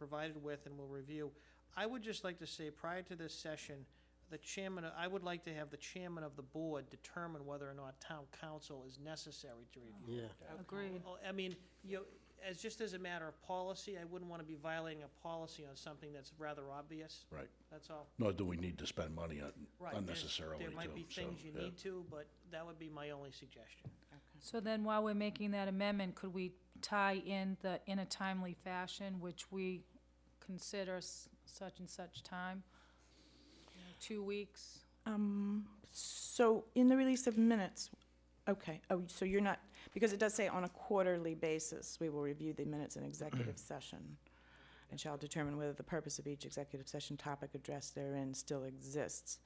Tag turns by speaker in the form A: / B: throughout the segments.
A: provided with and will review. I would just like to say, prior to this session, the chairman, I would like to have the chairman of the board determine whether or not town council is necessary to review.
B: Yeah.
C: Agreed.
A: Well, I mean, you, know, as, just as a matter of policy, I wouldn't want to be violating a policy on something that's rather obvious,
D: Right.
A: that's all.
D: Nor do we need to spend money on
A: Right, there's-
D: unnecessarily, too.
A: There might be
D: so,
A: things you
D: yeah.
A: need to, but that would be my only suggestion.
C: So then while we're making that amendment, could we tie in the, in a timely fashion, which we consider s- such and such time? You know, Two weeks?
E: Um, So in the release of minutes, okay, oh, so you're not, because it does say on a quarterly basis, we will review the minutes in executive session and shall determine whether the purpose of each executive session topic addressed therein still exists.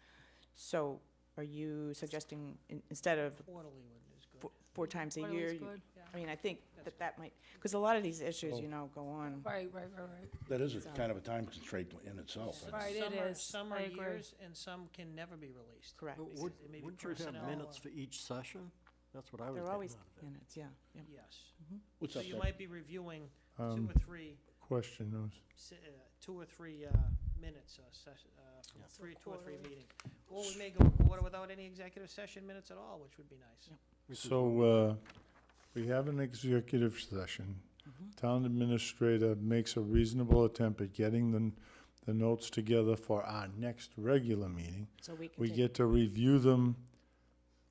E: So are you suggesting, in- instead of
A: Quarterly one is good.
E: four- four times a
C: Quarterly's
E: year? you-
C: good?
E: I mean, I think
A: That's
E: that that might, because a lot of these issues, you know, go on.
C: Right, right, right, right.
D: That is a kind of a time constraint in itself.
A: But
D: That's-
C: Right, it
A: some are-
C: is.
A: Some are
C: I agree.
A: years, and some can never be released.
E: Correct.
B: But
A: because
B: would-
A: it may be
B: Wouldn't you have
A: personnel
B: minutes
A: or-
B: for each session? That's what I was
E: There are
B: getting out
E: always
B: of it.
E: minutes, yeah, yeah.
A: Yes.
D: What's
A: So
D: up
A: you
D: there?
A: might be reviewing two
F: Um,
A: or three,
F: question those.
A: se- uh, two or three uh, minutes, uh, ses- uh, from
B: Yeah.
A: three, two or three
E: quarterly.
A: meetings. Or we may go a quarter without any executive session minutes at all, which would be nice.
E: Yeah.
B: Which is
F: So, uh, we have an executive session. Town administrator makes a reasonable attempt at getting the, the notes together for our next regular meeting.
E: So we can
F: We
E: take
F: get to review them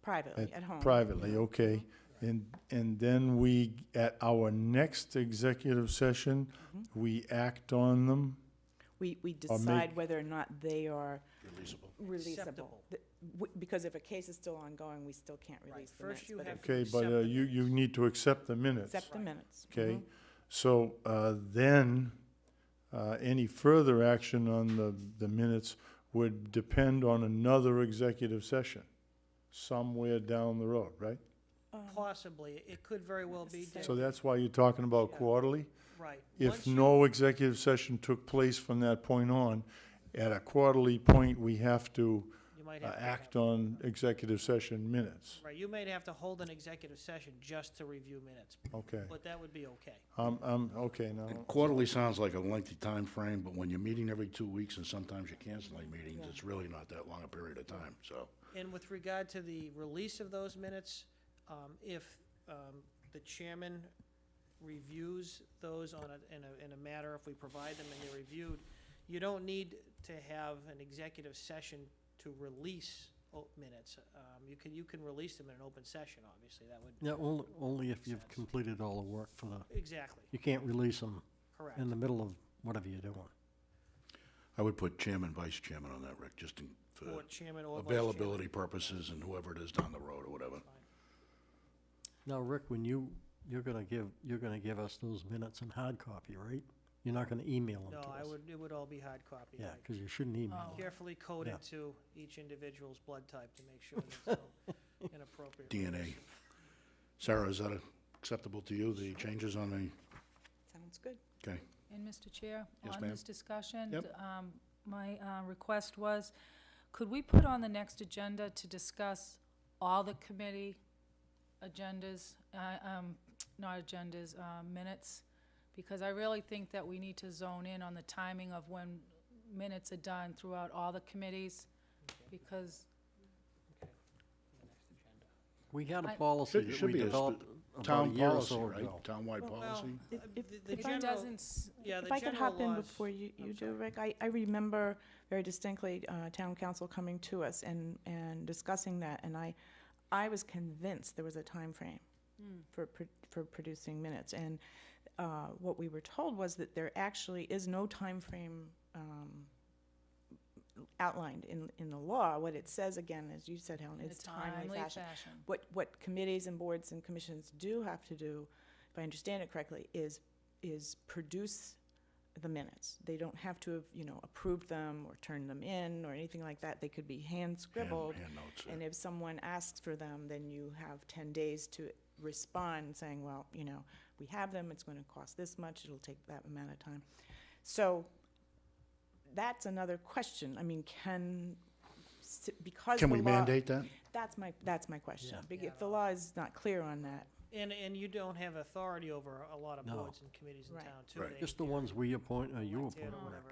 E: privately, at home.
F: privately, okay? And, and then we, at our next executive session, we act on them.
E: We, we decide
F: make-
E: whether or not they are
D: Releasable.
E: releasable.
A: Acceptable.
E: Th- w- Because if a case is still ongoing, we still can't
A: Right,
E: release the
A: first
E: minutes.
A: you
E: but
A: have
E: if-
F: Okay, but uh, you, you need to accept the minutes.
E: Accept the minutes.
A: Mm-hmm.
E: Mm-hmm.
F: Okay, so uh, then, uh, any further action on the, the minutes would depend on another executive session somewhere down the road, right?
E: Um,
A: Possibly, it could very well be, Dick.
F: So that's why you're talking about quarterly?
A: right.
F: If
A: Once you-
F: no executive session took place from that point on, at a quarterly point, we have to
A: you might
F: uh,
A: have to
F: act
A: have-
F: on executive session minutes,
A: Right, you may have to hold an executive session just to review minutes,
F: okay?
A: but that would be okay.
F: Um, um, okay, now,
D: And Quarterly sounds like a lengthy time frame, but when you're meeting every two weeks and sometimes you're canceling meetings, it's really not that long a period of time, so.
A: And with regard to the release of those minutes, um, if um, the chairman reviews those on a, in a, in a matter, if we provide them and they're reviewed, you don't need to have an executive session to release o- minutes. Um, You can, you can release them in an open session, obviously, that would,
B: Yeah, only, only if you've
A: Sense.
B: completed all the work for the,
A: exactly,
B: you can't release them
A: correct.
B: in the middle of whatever you're doing.
D: I would put chairman, vice chairman on that, Rick, just in,
A: Or
D: for
A: chairman or vice chairman.
D: availability purposes and whoever it is down the road or whatever.
B: Now, Rick, when you, you're gonna give, you're gonna give us those minutes in hard copy, right? You're not gonna email them to
A: No,
B: us?
A: I would, it would all be Oh. hard copy.
B: Yeah,
A: right.
B: because you shouldn't email them.
A: Carefully coded to each individual's blood type to make sure there's no inappropriate.
D: DNA. Sarah, is that acceptable to you, the changes on the,
E: Sounds good.
D: okay?
C: And Mr. Chair?
D: Yes,
C: On
D: ma'am.
C: this discussion?
D: Yep.
C: um, My uh, request was, could we put on the next agenda to discuss all the committee agendas, uh, um, not agendas, uh, minutes? Because I really think that we need to zone in on the timing of when minutes are done throughout all the committees, because
B: We had a
C: I-
B: policy
D: Should-
B: that
D: should
B: we
D: be a sp-
B: developed about a
D: Town
B: year or
D: policy,
B: so
D: right?
B: ago.
D: Townwide policy?
E: If-
A: The-
E: if-
A: the
E: if I-
C: it
A: general-
C: doesn't, s-
A: Yeah,
E: If I could hop in before you,
A: I'm
E: you do,
A: sorry.
E: Rick, I, I remember very distinctly uh, town council coming to us and, and discussing that, and I, I was convinced there was a time frame
C: hmm,
E: for, pro- for producing minutes, and uh, what we were told was that there actually is no time frame um, outlined in, in the law. What it says, again, as you said, Helen,
C: in a
E: is timely
C: timely
E: fashion
C: fashion.
E: what, what committees and boards and commissions do have to do, if I understand it correctly, is, is produce the minutes. They don't have to have, you know, approved them or turned them in or anything like that. They could be hand scribbled.
D: Hand notes, yeah.
E: And if someone asks for them, then you have ten days to respond, saying, well, you know, we have them, it's gonna cost this much, it'll take that amount of time. So, that's another question. I mean, can, s- because the
D: Can
E: law.
D: we mandate that?
E: That's my, that's my question.
B: Yeah.
E: Big- If the law is not clear on that,
A: And, and you don't have authority over a lot of
B: No.
A: boards and committees in
E: Right.
A: town, too.
D: Right.
A: They-
B: Just the ones we appoint or you
A: elected or
B: appoint.
A: whatever.